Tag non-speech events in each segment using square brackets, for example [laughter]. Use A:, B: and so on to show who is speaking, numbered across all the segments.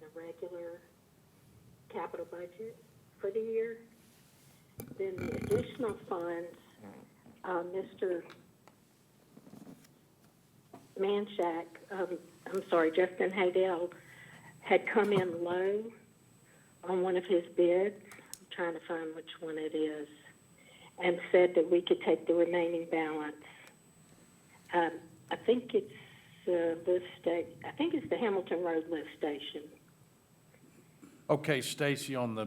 A: the regular capital budget for the year. Then the additional funds, uh, Mr. Manshak, um, I'm sorry, Justin Haydell had come in low on one of his bids. I'm trying to find which one it is. And said that we could take the remaining balance. Um, I think it's the lift sta- I think it's the Hamilton Road lift station.
B: Okay, Stacy, on the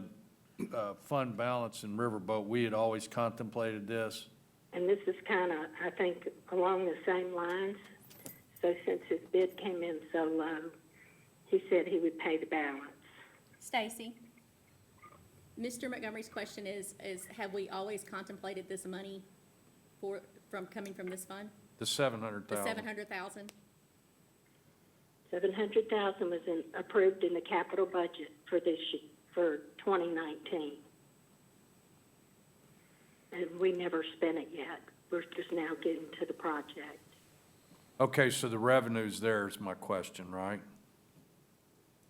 B: uh, fund balance in Riverboat, we had always contemplated this.
A: And this is kind of, I think, along the same lines. So since his bid came in so low, he said he would pay the balance.
C: Stacy? Mr. Montgomery's question is, is have we always contemplated this money for, from, coming from this fund?
B: The seven hundred
C: The seven
B: thousand.
C: hundred thousand?
A: Seven hundred thousand was in, approved in the capital budget for this, ye- for twenty nineteen. And we never spent it yet. We're just now getting to the project.
B: Okay, so the revenue's there is my question, right?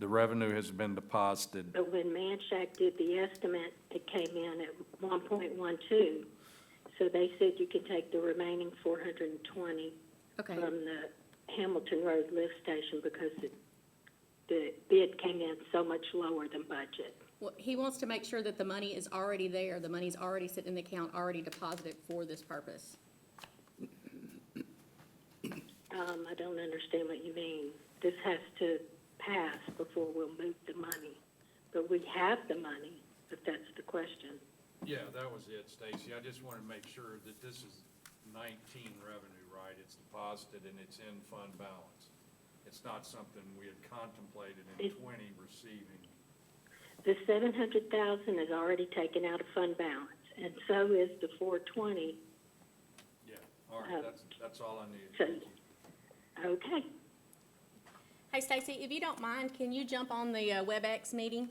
B: The revenue has been deposited.
A: But when Manshak did the estimate, it came in at one point one two. So they said you can take the remaining four hundred and twenty
C: Okay,
A: from the Hamilton Road lift station because it, the bid came in so much lower than budget.
C: well, he wants to make sure that the money is already there, the money's already sitting in the account, already deposited for this purpose.
A: Um, I don't understand what you mean. This has to pass before we'll move the money. But we have the money, if that's the question.
D: Yeah, that was it, Stacy. I just wanted to make sure that this is nineteen revenue, right? It's deposited and it's in fund balance. It's not something we had contemplated in
A: It-
D: twenty receiving.
A: The seven hundred thousand is already taken out of fund balance, and so is the four twenty.
D: Yeah, all
A: Oh.
D: right, that's, that's all I needed.
A: So-
D: Thank you.
A: Okay,
C: Hey, Stacy, if you don't mind, can you jump on the uh, WebEx meeting?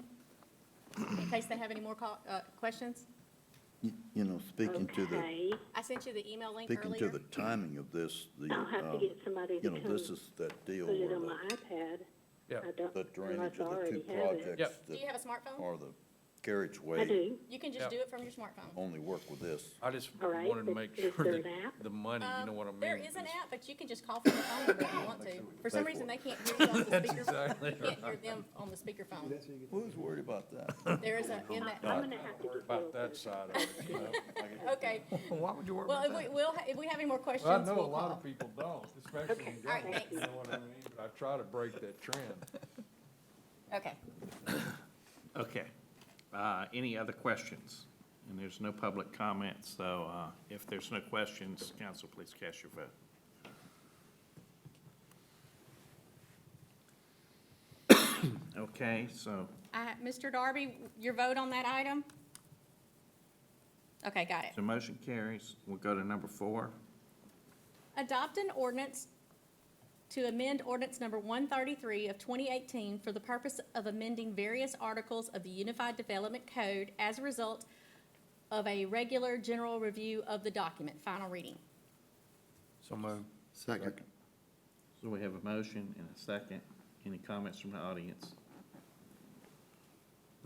C: In case they have any more call, uh, questions?
E: You you know, speaking to the,
A: okay.
C: I sent you the email link
E: speaking to
C: earlier.
E: the timing of this, the,
A: I'll have to
E: um,
A: get somebody
E: you
A: to
E: know,
A: come
E: this is that deal
A: put it
E: where
A: on
E: the-
A: my iPad.
B: Yeah.
A: I don't,
E: the
A: unless
E: drainage
A: I
E: of the two
A: already have it.
E: projects
B: Yep.
C: Do you
E: that
C: have a smartphone?
E: are the
A: I
E: carriageway
A: do.
C: You can
B: Yeah.
C: just do it from your smartphone.
E: only work with this.
B: I just
A: All right,
B: wanted to
A: but
B: make
A: is
B: sure
A: there
B: that
A: an app?
B: the money, you
C: Um,
B: know what I mean?
C: There is an app, but you can just call from the phone number if you want to. For some
E: Pay
C: reason,
E: for
C: they can't hear you on the
B: [laughs] That's
C: speaker,
B: exactly
C: can't hear them on the speakerphone.
E: Who's worried about
C: [laughs]
E: that?
C: There is a, in that,
A: I'm gonna have to get
B: About
A: Bill.
B: that side of it,
A: [laughs]
B: you know?
C: okay.
E: Why would you worry
C: Well, if we, will if we have any more questions,
D: Well, I know
C: we'll
D: a lot
C: call.
D: of people don't, especially
A: Okay,
D: in
C: all right,
D: Dallas, you know
C: thanks.
D: what I mean? But I try to break that trend.
C: Okay.
F: Okay. Uh, Any other questions? And there's no public comment, so uh, if there's no questions, council, please cast your vote. [coughs] Okay, so
C: Uh, Mr. Darby, your vote on that item? Okay, got it.
F: the motion carries. We'll go to number four.
C: Adopt an ordinance to amend ordinance number 133 of 2018 for the purpose of amending various articles of the Unified Development Code as a result of a regular general review of the document, final reading.
B: So moved.
E: Second.
F: So we have a motion and a second. Any comments from the audience?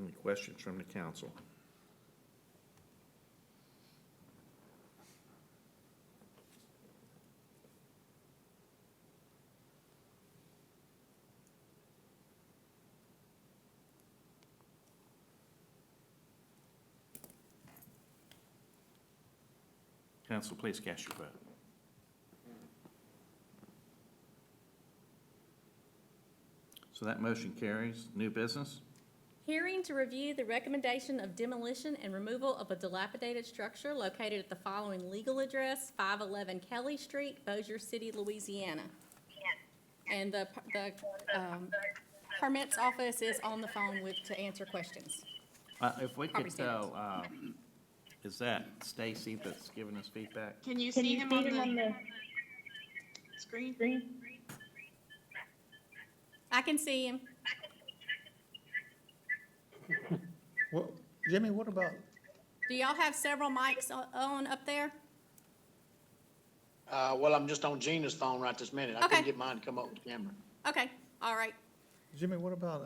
F: Any questions from the council? Council, please cast your vote. So that motion carries. New business?
C: Hearing to review the recommendation of demolition and removal of a dilapidated structure located at the following legal address, 511 Kelly Street, Bossier City, Louisiana. And the, the um, permits office is on the phone with, to answer questions.
F: Uh, If we
C: Property
F: could
C: standards.
F: tell, uh, is that Stacy that's giving us feedback?
G: Can you see him on the screen?
C: I can see him.
H: [laughs] Well, Jimmy, what about,
C: Do y'all have several mics o- on up there?
I: Uh, well, I'm just on Gina's phone right this minute. I
C: Okay.
I: couldn't get mine to come up with the camera.
C: Okay, all right.
H: Jimmy, what about